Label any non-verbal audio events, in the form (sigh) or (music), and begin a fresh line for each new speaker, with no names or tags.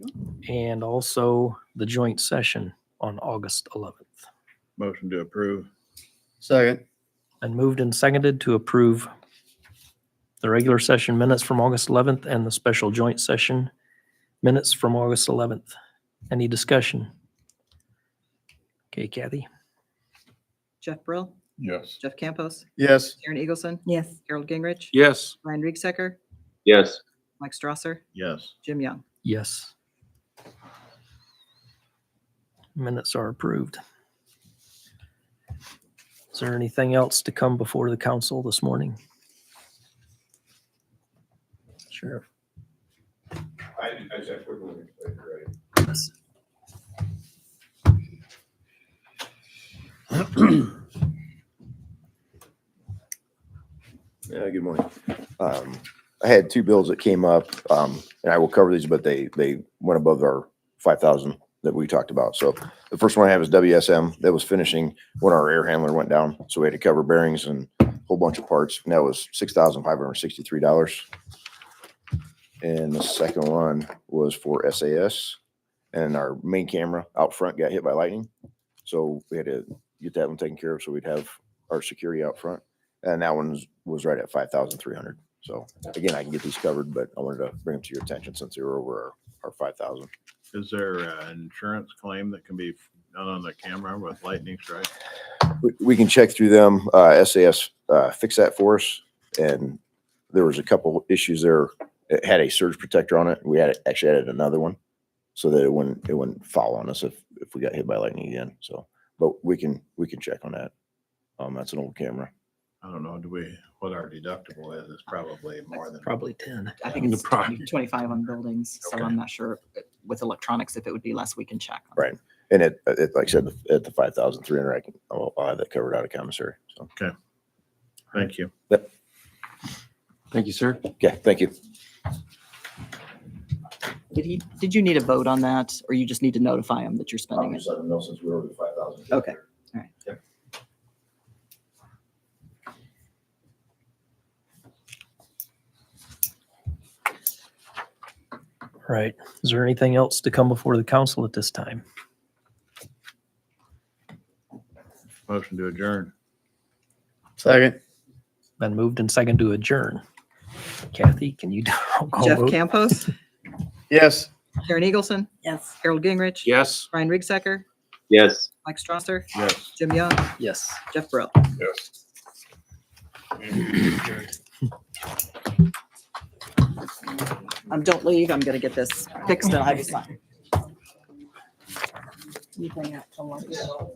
and also the joint session on August 11th.
Motion to approve.
Second.
And moved and seconded to approve the regular session minutes from August 11th and the special joint session minutes from August 11th. Any discussion? Okay, Kathy?
Jeff Brill,
Yes.
Jeff Campos,
Yes.
Aaron Eagleson,
Yes.
Harold Gingrich,
Yes.
Ryan Riecksecker,
Yes.
Mike Strasser,
Yes.
Jim Young.
Yes. Minutes are approved. Is there anything else to come before the council this morning? Sure.
I, I just wouldn't want to play great.
Yeah, good morning. Um, I had two bills that came up, um, and I will cover these, but they, they went above our five thousand that we talked about. So the first one I have is WSM. That was finishing when our air handler went down. So we had to cover bearings and a whole bunch of parts. And that was six thousand five hundred sixty-three dollars. And the second one was for SAS and our main camera out front got hit by lightning. So we had to get that one taken care of. So we'd have our security out front. And that one was right at five thousand three hundred. So again, I can get these covered, but I wanted to bring them to your attention since they were over our, our five thousand.
Is there uh, an insurance claim that can be done on the camera with lightning strike?
We, we can check through them. Uh, SAS, uh, fix that for us. And there was a couple issues there. It had a surge protector on it. We had, actually added another one so that it wouldn't, it wouldn't fall on us if, if we got hit by lightning again. So, but we can, we can check on that. Um, that's an old camera.
I don't know, do we, what our deductible is, is probably more than.
Probably 10.
I think it's 20 25 on buildings, so I'm not sure if- with electronics if it would be less. We can check. on that.
Right. And it, it, like I said, at the five thousand three hundred, I can, I'll, I'll have that covered out of commissary. So,
Thank you.
Thank you, sir.
okay, thank you.
Did he, did you need a vote on that or you just need to notify him that you're spending it?
letting them know since we're over the five thousand.
Okay.
Right. Is there anything else to come before the council at this time?
Motion to adjourn.
Second.
Been moved and second to adjourn. Kathy, can you (laughs) do a roll call
Jeff
vote?
Campos,
Yes.
Aaron Eagleson,
Yes.
Harold Gingrich,
Yes.
Ryan Riecksecker,
Yes.
Mike Strasser,
Yes.
Jim Young,
Yes.
Jeff Brill. Um, don't leave. I'm going to get this fixed and I will sign.
You bring up the lunch.